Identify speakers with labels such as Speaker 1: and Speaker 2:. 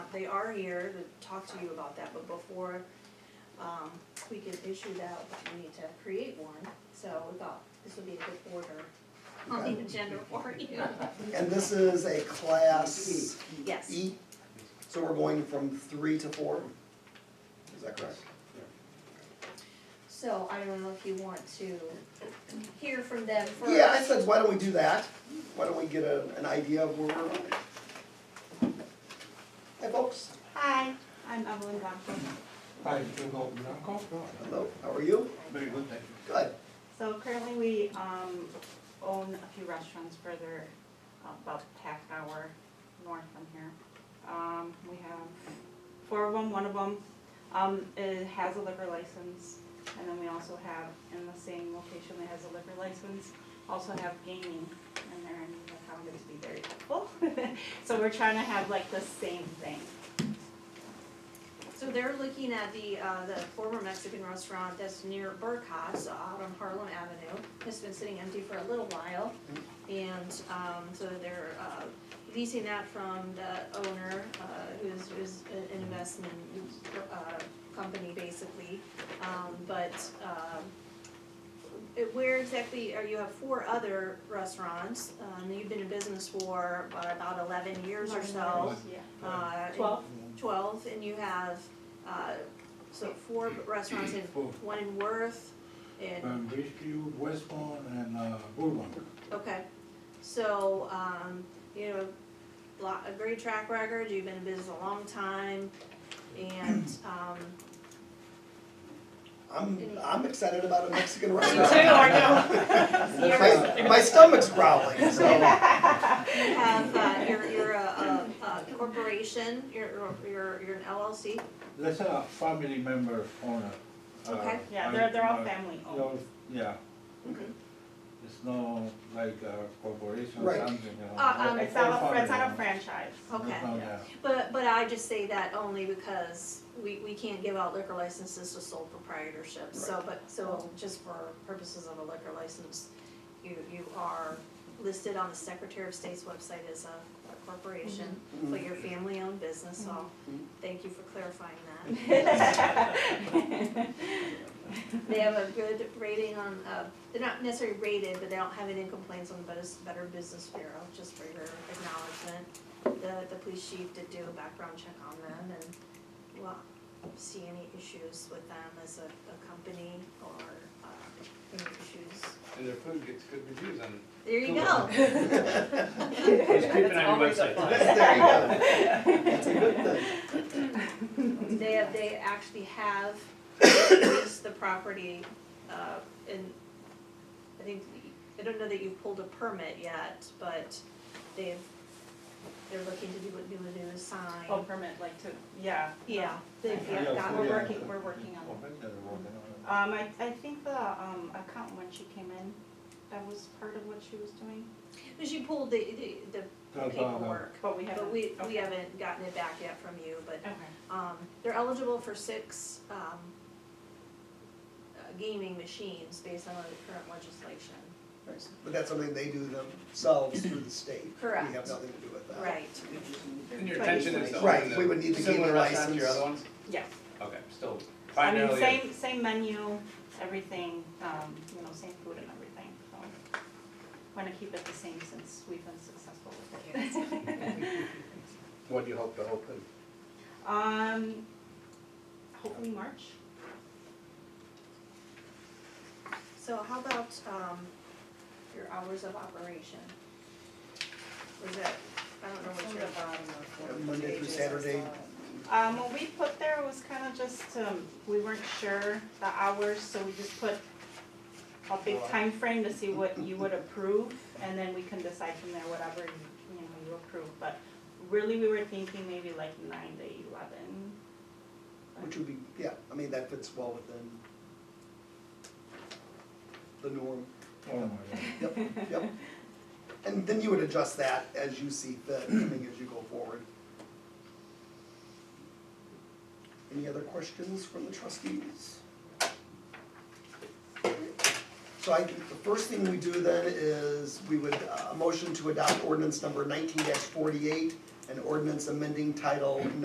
Speaker 1: they are here to talk to you about that, but before, um, we can issue that, we need to create one, so we thought this would be a good order on the agenda for you.
Speaker 2: And this is a class
Speaker 1: Yes,
Speaker 2: E, so we're going from three to four? Is that correct?
Speaker 1: so I don't know if you want to hear from them first.
Speaker 2: Yeah, I said, why don't we do that? Why don't we get a, an idea of where we're at? Hi folks,
Speaker 3: Hi, I'm Evelyn Godfrey.
Speaker 4: Hi, Jim Holton, I'm
Speaker 2: hello, how are you?
Speaker 4: Very good, thank
Speaker 2: Good.
Speaker 3: So currently we um, own a few restaurants further, uh, about half an hour north from here. Um, We have four of them, one of them um, it has a liquor license. And then we also have, in the same location that has a liquor license, also have gaming in there and that found it to be very helpful. So we're trying to have like the same thing.
Speaker 1: So they're looking at the, uh, the former Mexican restaurant that's near Burkhart's out on Harlem Avenue. It's been sitting empty for a little while. And, um, so they're, uh, leasing that from the owner, uh, who's, who's an investment, uh, company basically. Um, but, um, it- where exactly, are you have four other restaurants, um, you've been in business for uh, about eleven years or so.
Speaker 3: Yeah.
Speaker 1: Uh,
Speaker 3: Twelve.
Speaker 1: Twelve, and you have, uh, so four restaurants in,
Speaker 4: Four.
Speaker 1: one in Worth, and,
Speaker 4: Um, Bridgeview, Westmont, and, uh, Woodland.
Speaker 1: okay. So, um, you know, lot, a great track record, you've been in business a long time, and, um,
Speaker 2: I'm, I'm excited about a Mexican
Speaker 1: you too,
Speaker 2: restaurant.
Speaker 1: I
Speaker 2: My, my stomach's growling, so,
Speaker 1: know, you have, uh, you're, you're a, a a corporation, you're, you're, you're an LLC,
Speaker 4: That's a family member owner. Uh,
Speaker 1: Okay.
Speaker 3: Yeah, they're, they're all
Speaker 4: uh,
Speaker 3: family Mm-hmm.
Speaker 4: they're
Speaker 3: owned.
Speaker 4: all- Yeah.
Speaker 1: Mhm.
Speaker 4: It's no like a corporation or
Speaker 2: Right.
Speaker 4: something, you know.
Speaker 1: Uh, um,
Speaker 4: They're
Speaker 3: It's not
Speaker 4: all
Speaker 3: a, it's not a
Speaker 4: family
Speaker 3: franchise.
Speaker 4: owned.
Speaker 1: okay.
Speaker 4: It's not,
Speaker 3: Yeah.
Speaker 1: But, but I just say that only because we, we can't give out liquor licenses to sole proprietorships, so, but, so just for purposes of a liquor license, you, you are listed on the Secretary of State's website as a a corporation, but you're family-owned business, so
Speaker 2: Mhm.
Speaker 1: thank you for clarifying that. They have a good rating on, uh, they're not necessarily rated, but they don't have any complaints on the Better, Better Business Bureau, just for your acknowledgement. The, the police chief did do a background check on them and we won't see any issues with them as a, a company or, uh, any issues.
Speaker 5: And their food gets good reviews on it.
Speaker 1: There you
Speaker 5: Cool.
Speaker 1: go.
Speaker 5: It's creeping on your website.
Speaker 2: there you go. That's a good thing.
Speaker 1: They have, they actually have leased the property, uh, and I think, I don't know that you've pulled a permit yet, but they've, they're looking to do a, do a new
Speaker 3: Oh,
Speaker 1: sign.
Speaker 3: permit, like to, yeah.
Speaker 1: Yeah, they've,
Speaker 3: Yeah,
Speaker 1: yeah,
Speaker 3: We're
Speaker 1: got,
Speaker 4: yeah.
Speaker 3: working, we're working
Speaker 4: Oh,
Speaker 3: on it.
Speaker 4: I bet they're working on it.
Speaker 3: Um, I, I think the, um, account when she came in, that was part of what she was doing,
Speaker 1: because you pulled the, the, the
Speaker 4: That's all I know.
Speaker 1: paperwork,
Speaker 3: but we haven't.
Speaker 1: but we, we
Speaker 3: okay.
Speaker 1: haven't gotten it back yet from you, but
Speaker 3: Okay,
Speaker 1: Um, they're eligible for six, um, uh, gaming machines based on the current legislation.
Speaker 2: But that's something they do themselves through the state. We have
Speaker 1: Correct.
Speaker 2: nothing to do with that.
Speaker 1: Right,
Speaker 5: And your intention is to open
Speaker 2: Right, we would
Speaker 5: the
Speaker 2: need to gain
Speaker 5: similar
Speaker 2: a
Speaker 5: restaurant to your
Speaker 2: license.
Speaker 5: other ones?
Speaker 3: yes.
Speaker 5: Okay, still
Speaker 3: I mean,
Speaker 5: primarily.
Speaker 3: same, same menu, everything, um, you know, same food and everything, so. Wanna keep it the same since we've been successful with it.
Speaker 5: What do you hope to open?
Speaker 3: Um, hopefully March.
Speaker 1: so how about, um, your hours of operation? Or is that, I don't know what your,
Speaker 2: Monday through Saturday,
Speaker 3: Um, what we put there was kind of just, um, we weren't sure the hours, so we just put a big time frame to see what you would approve, and then we can decide from there whatever, you know, you approve, but really, we were thinking maybe like nine to eleven.
Speaker 2: which would be, yeah, I mean, that fits well within the norm.
Speaker 4: Oh, my God.
Speaker 2: Yep, yep. And then you would adjust that as you see fit, I think, as you go forward. Any other questions from the trustees? So I think the first thing we do then is we would, uh, a motion to adopt ordinance number nineteen forty-eight, an ordinance amending title